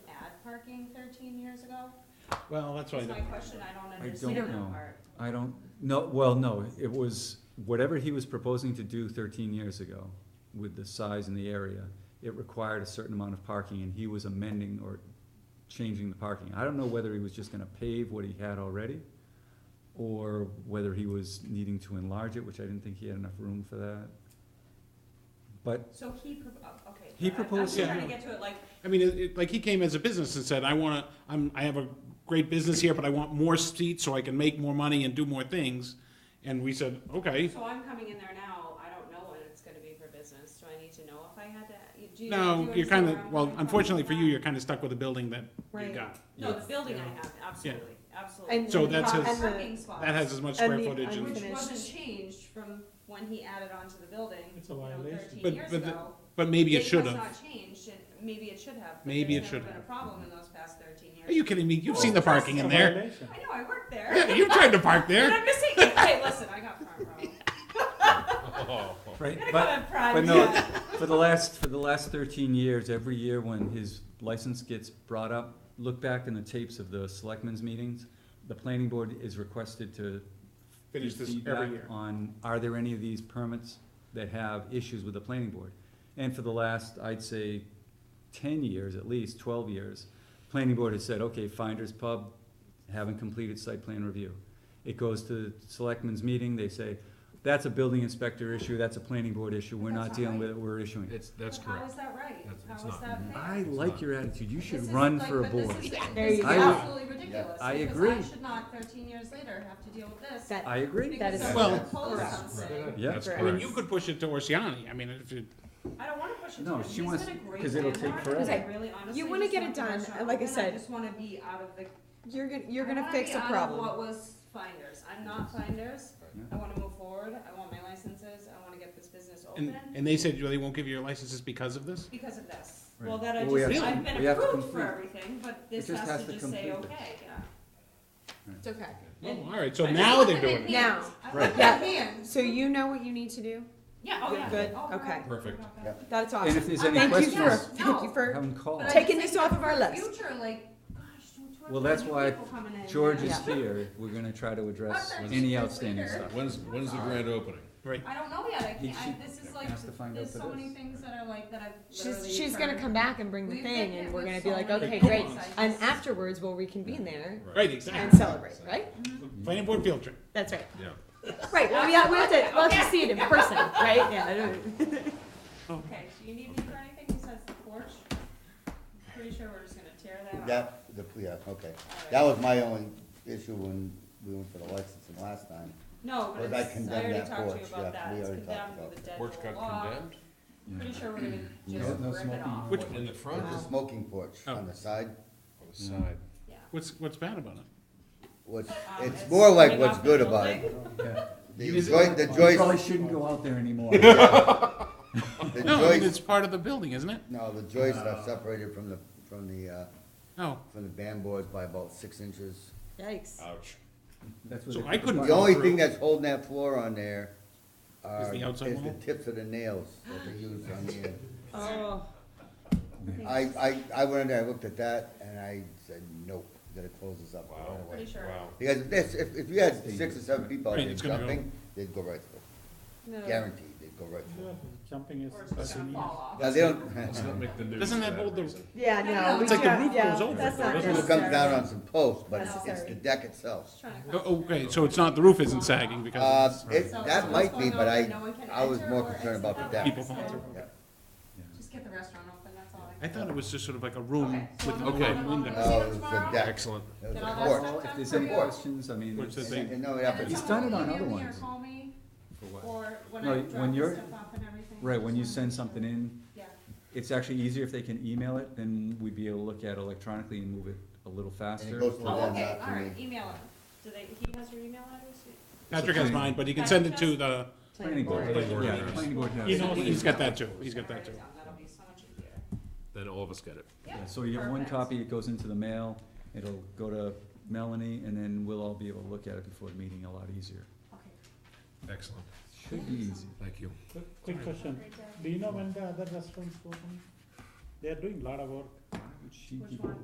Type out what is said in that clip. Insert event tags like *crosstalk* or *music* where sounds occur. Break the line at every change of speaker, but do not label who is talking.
parking thirteen years ago?
Well, that's why,
That's my question, I don't
don't
understand
know.
that part.
I don't, no, well, no, it was, whatever he was proposing to do thirteen years ago with the size and the area, it required a certain amount of parking and he was amending or changing the parking. I don't know whether he was just gonna pave what he had already or whether he was needing to enlarge it, which I didn't think he had enough room for that. But
So he, pro- oh, okay.
He
I-
proposed-
I'm
Yeah.
just trying to get to it, like,
I mean, it, it, like he came as a business and said, I wanna, I'm, I have a great business here, but I want more seats so I can make more money and do more things. And we said, okay,
so I'm coming in there now, I don't know when it's gonna be for business, do I need to know if I had to? do you- do
no,
you
you're
understand
kinda,
where I'm
well,
coming from
unfortunately
with
for you,
that?
you're kinda stuck with a building that you
Right.
got.
No, the building I
Yeah.
have, absolutely, absolutely.
And
So
the
that's
pro-
his-
and the-
Parking spots.
That has as much
And
square
the
footage and.
Which
Finished.
wasn't changed from when he added onto the building,
It's a
you know,
violation. But-
thirteen years
but the-
ago.
But maybe it should
It
have.
was not changed, and maybe it should have, but
Maybe
there's never
it should
been a
have.
problem in those past thirteen years.
Are you kidding me? You've seen the parking in there.
I know, I worked there.
Yeah, you tried to park
And
there.
I'm just saying, hey, listen, I got front row.
Right,
I'm gonna
but-
go in front,
but no.
yeah.
For the last, for the last thirteen years, every year when his license gets brought up, look back in the tapes of the selectmen's meetings. The planning board is requested to. give
Finish this every
feedback
year.
On, are there any of these permits that have issues with the planning board? And for the last, I'd say, ten years at least, twelve years, planning board has said, okay, Finders Pub haven't completed site plan review. It goes to selectmen's meeting, they say, that's a building inspector issue, that's a planning board issue, we're not
That's not
dealing
right.
with it, we're issuing it.
It's, that's
But How
correct.
is that right?
That's-
How
it's
is
not-
that fair?
I like your attitude, you
This
should
is
run
like-
for a
but this
board.
is-
There
This is
you
go.
absolutely ridiculous,
I
because I
agree.
should not, thirteen years later, have to deal with this.
That-
I agree,
Because
is
someone
Well-
proposed
correct.
something.
yeah,
That's
Correct.
I mean,
correct.
you could push it to Orsiani. I mean, if you,
I don't wanna push it
No,
to him.
she
He's
wants-
been a great
'cause it'll take
landlord,
forever.
and I
Okay.
really honestly
You wanna
just
get
want the
it done,
restaurant
and like I
open.
said-
just wanna be out of the
You're gonna, you're
I
gonna
wanna
fix
be
a
out of
problem.
What was finders? I'm not finders.
Yeah.
I wanna move forward. I want my licenses. I wanna get this business
and,
open
and they said, well, they won't give you your licenses because of this?
because of this.
Right.
Well, that I
Well, we
just,
have to-
I've been
we have to
approved for
complete.
everything, but this
just
has
has
to
to
just say,
complete
okay, yeah.
It's okay.
Oh,
And-
all right, so
I just
now
want
they're
them in
doing it.
hands.
Now.
I want
Right.
them
Yeah.
hands.
So you know what you need to do?
Yeah, oh
You're
yeah.
good.
Oh,
Okay.
right.
Perfect.
Okay.
Yeah.
That's
And if
awesome.
there's
Uh,
any
Thank you
questions.
for,
questions?
thank you
Have
for,
'em call.
But I'm
Taking
just
this off of
thinking
our
for the
list.
Future, like, gosh, don't you have
Well,
so
that's
many
why
people coming in
George
and-
is
Yeah.
here, we're gonna try to address
When's-
any outstanding
*laughs*
stuff.
When's, when's the grand opening?
Right.
I don't know yet, I
He-
can't, I, this is like,
has to find out
there's
for
so many
this.
things that are like, that I've literally.
she's, she's gonna
tried.
come back and bring the
We've
thing
been
and
hit
we're
with
gonna
so
be like,
many
okay,
things.
great.
I
And
just-
afterwards, we'll reconvene there
Right,
and
exactly.
celebrate, right?
Planning board field trip.
That's right.
Yeah.
Right, well, yeah, we have to, we'll have to see it in person, right? Yeah, I don't-
Okay, do you need me for anything besides the porch? Pretty sure we're just gonna tear that off.
That, the, yeah, okay. That was my only issue when we went for the licensing last time.
No, but
Well, that
it's, I
condemned
already
that
talked to you
porch,
about
yeah,
that,
we
it's
already
condemned
talked about Mm-hmm.
with a dead
Porch
little
got
log.
condemned?
Pretty sure we're gonna
Yeah.
just
No
rip it
smoking.
off,
Which-
In the front?
The smoking porch
Oh.
on the side,
On the side.
yeah.
What's, what's bad about it?
what's,
Um,
it's more like
coming
what's
off the
good about it.
building.
Yeah.
The
Is it-
joist, the
You probably
joist,
shouldn't go out there *laughs* anymore.
the
*laughs* No, I mean, it's
joist,
part of the building, isn't it?
no, the joists are separated from the, from the, uh,
Oh,
from the band boards by about six inches.
Yikes.
Ouch.
That's what
So
it-
I couldn't-
The only
Through.
thing that's holding that floor on there
Is
are,
the
is
outside
the
wall?
tips of the nails that they use
*laughs*
on the end.
Oh.
I, I, I went in there, I looked at that, and I said, nope, gotta close this up right away.
Pretty sure.
Wow.
Because if this, if, if you had six or seven people out
Right,
there
it's gonna go-
jumping, they'd go right through,
No.
guaranteed, they'd go right through.
Jumping is.
Or it's just gonna fall off.
Now, they don't, *laughs*
Let's not make the news.
Doesn't
for
that hold the-
reason.
Yeah,
No, no,
no. we
it's like the
can't-
roof
yeah,
goes over
That's
it,
not
though, doesn't
it
necessary.
comes down on some posts, but it's, it's the
Necessary.
deck itself.
Just trying to-
Oh, Okay, so it's not, the roof isn't sagging
Uh,
because
it,
it's,
So- so
that might
what's going
be,
on
but I,
that no one can
I was
enter
more
or
concerned about the
exit
deck.
out?
people falling
So-
through.
Yeah.
Just get the restaurant open, that's all I
I
can.
thought it was just sort of like a room
Okay, so
with
I'm
an
gonna
open
go on the
window.
Oh,
casino
it was
tomorrow.
the deck,
Uh, Excellent.
it was
Did
a
all that
porch.
stuff
If there's
done
any
for you?
questions, I mean,
Which is
it's-
a-
And no,
And
yeah,
then
He's
but
done it
someone
on
will
other
email me or
ones.
Call me,
For what?
or when
No,
I
when
drop this
you're-
stuff off and everything.
right, when you
Just
send
wanna-
something in,
Yeah,
it's actually easier if they can email it, then we'd be able to look at it electronically and move it a little faster.
goes to
or-
Well,
oh,
then
okay,
that for
alright,
me.
email him, do they, he has your email address?
Patrick has mine, but he can send it to the,
Planning board,
Planning board.
yeah, the planning board has.
he's,
it.
he's got that too, he's got that too.
That'll be so much easier.
Then all of us get it.
Yeah, So you get one
perfect.
copy, it goes into the mail, it'll go to Melanie, and then we'll all be able to look at it before the meeting a lot easier.
Okay.
Excellent.
Should be easy.
Thank you.
Quick question, do you know when the other restaurants open? They are doing a lot of work.
She
Which
keep-
one?